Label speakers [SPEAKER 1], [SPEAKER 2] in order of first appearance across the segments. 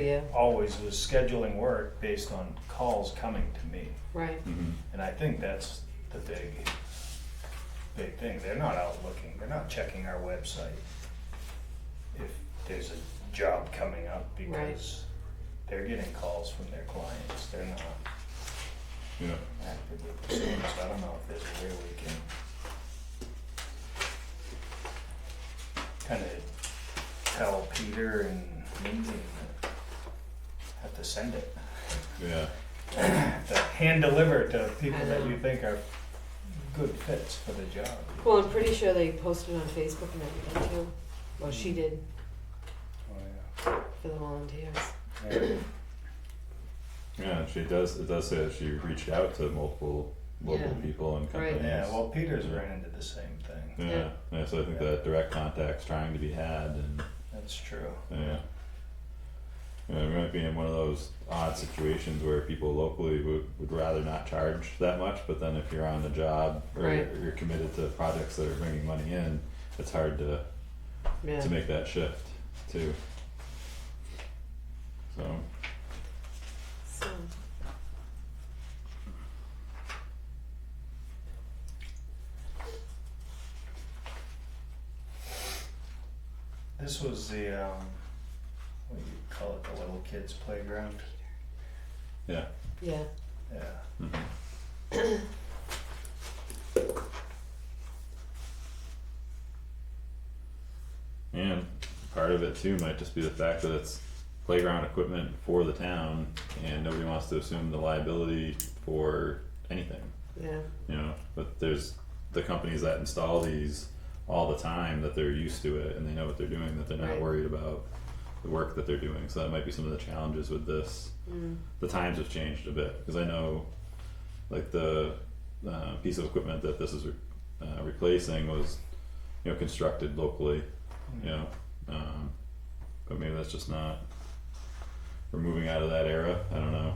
[SPEAKER 1] yeah.
[SPEAKER 2] always was scheduling work based on calls coming to me.
[SPEAKER 1] right.
[SPEAKER 3] Mhm.
[SPEAKER 2] And I think that's the big, big thing. They're not out looking, they're not checking our website if there's a job coming up because they're getting calls from their clients. They're not
[SPEAKER 3] Yeah,
[SPEAKER 2] actively pursuing us. I don't know if there's a way we can kind of tell Peter and Lindsay that have to send it.
[SPEAKER 3] yeah,
[SPEAKER 2] to hand deliver to people that
[SPEAKER 1] I
[SPEAKER 2] you
[SPEAKER 1] know.
[SPEAKER 2] think are good fits for the job.
[SPEAKER 1] Well, I'm pretty sure they posted on Facebook and everything too. Well,
[SPEAKER 2] Hmm.
[SPEAKER 1] she did
[SPEAKER 2] Oh,
[SPEAKER 1] for the volunteers.
[SPEAKER 3] yeah. She does. It does say that she reached out to multiple local
[SPEAKER 1] Yeah.
[SPEAKER 3] people and
[SPEAKER 1] Right.
[SPEAKER 3] companies.
[SPEAKER 2] Yeah, well, Peter's ran into the same thing,
[SPEAKER 3] Yeah.
[SPEAKER 1] Yeah.
[SPEAKER 3] yeah, So I think
[SPEAKER 2] Yeah.
[SPEAKER 3] that direct contact's trying to be had, and
[SPEAKER 2] that's true.
[SPEAKER 3] yeah. Yeah, we might be in one of those odd situations where people locally would, would rather not charge that much, but then if you're on the job or
[SPEAKER 1] Right.
[SPEAKER 3] you're, you're committed to projects that are bringing money in, it's hard to
[SPEAKER 1] Yeah.
[SPEAKER 3] to make that shift too. So
[SPEAKER 1] So,
[SPEAKER 2] This was the, um, what do you call it, the little kids playground?
[SPEAKER 3] yeah.
[SPEAKER 1] yeah.
[SPEAKER 2] Yeah,
[SPEAKER 3] Mhm. And part of it too might just be the fact that it's playground equipment for the town and nobody wants to assume the liability for anything,
[SPEAKER 1] Yeah.
[SPEAKER 3] you know, but there's the companies that install these all the time that they're used to it and they know what they're doing, that they're not
[SPEAKER 1] Right.
[SPEAKER 3] worried about the work that they're doing, so that might be some of the challenges with this
[SPEAKER 1] Mm.
[SPEAKER 3] the times have changed a bit because I know, like the uh, piece of equipment that this is re- uh, replacing was, you know, constructed locally, you know, um, but maybe that's just not. We're moving out of that era. I don't know,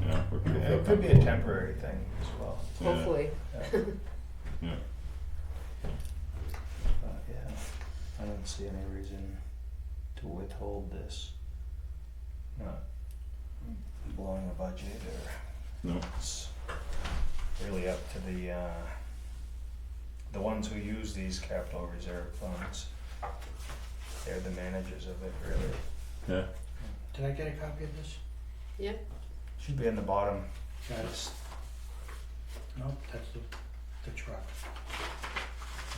[SPEAKER 3] you know, where people
[SPEAKER 2] Yeah,
[SPEAKER 3] feel
[SPEAKER 2] it could be a
[SPEAKER 3] comfortable.
[SPEAKER 2] temporary thing as well,
[SPEAKER 3] Yeah,
[SPEAKER 1] Hopefully.
[SPEAKER 3] Yeah,
[SPEAKER 2] but yeah, I don't see any reason to withhold this. Not blowing a budget or
[SPEAKER 3] no,
[SPEAKER 2] It's really up to the, uh, the ones who use these capital reserve funds. They're the managers of it, really.
[SPEAKER 3] yeah,
[SPEAKER 4] Did I get a copy of this?
[SPEAKER 2] Should be in the bottom.
[SPEAKER 4] Got it.
[SPEAKER 2] It's-
[SPEAKER 4] Nope, that's the, the truck.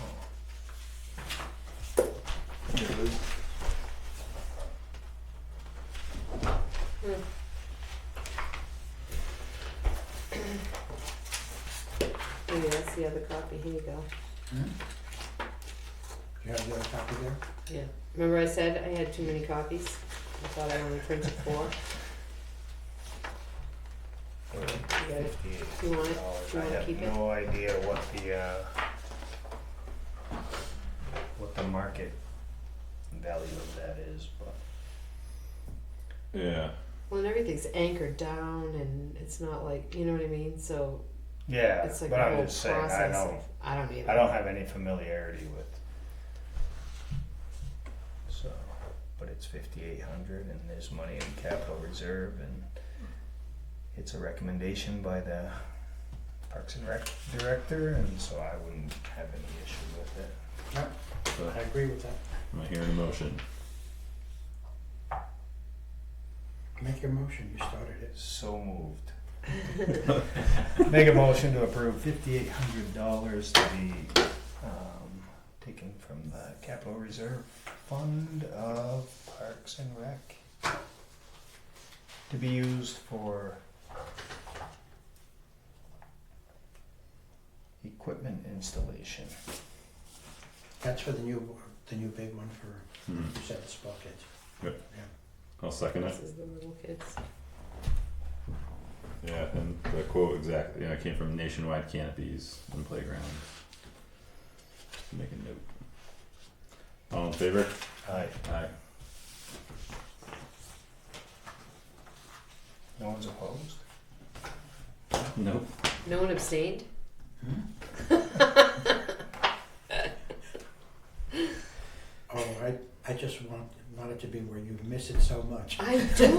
[SPEAKER 2] oh.
[SPEAKER 1] Mm. Maybe that's the other copy. Here you go.
[SPEAKER 4] Hmm? You have the other copy there?
[SPEAKER 1] Yeah. Remember I said I had too many copies? I thought I only printed four. You got it?
[SPEAKER 2] Fifty-eight
[SPEAKER 1] You want it?
[SPEAKER 2] dollars.
[SPEAKER 1] Do you
[SPEAKER 2] I
[SPEAKER 1] wanna
[SPEAKER 2] have
[SPEAKER 1] keep it?
[SPEAKER 2] no idea what the, uh, what the market value of that is, but
[SPEAKER 3] yeah,
[SPEAKER 1] Well, and everything's anchored down and it's not like, you know what I mean? So
[SPEAKER 2] yeah,
[SPEAKER 1] it's like
[SPEAKER 2] but
[SPEAKER 1] a whole
[SPEAKER 2] I'm just
[SPEAKER 1] process.
[SPEAKER 2] saying, I know,
[SPEAKER 1] of- I don't either.
[SPEAKER 2] I don't have any familiarity with. So, but it's fifty-eight hundred and there's money in capital reserve and it's a recommendation by the Parks and Rec director and so I wouldn't have any issue with it.
[SPEAKER 3] so
[SPEAKER 4] I agree with that.
[SPEAKER 3] am I hearing a motion?
[SPEAKER 4] Make your motion, you started it.
[SPEAKER 2] So moved. Make a motion to approve fifty-eight hundred dollars to be, um, taken from the capital reserve fund of Parks and Rec. To be used for equipment installation.
[SPEAKER 4] That's for the new, the new big one for,
[SPEAKER 3] Hmm.
[SPEAKER 4] you said the small kids.
[SPEAKER 3] I'll second it.
[SPEAKER 1] This is the little kids.
[SPEAKER 3] Yeah, and the quote exactly, you know, came from Nationwide Canopies and Playgrounds. Make a note. All in favor?
[SPEAKER 2] Aye.
[SPEAKER 3] Aye.
[SPEAKER 2] No one's opposed?
[SPEAKER 3] Nope.
[SPEAKER 1] No one abstained?
[SPEAKER 4] Hmm? Oh, I, I just want, wanted to be where you miss it so much.
[SPEAKER 1] I do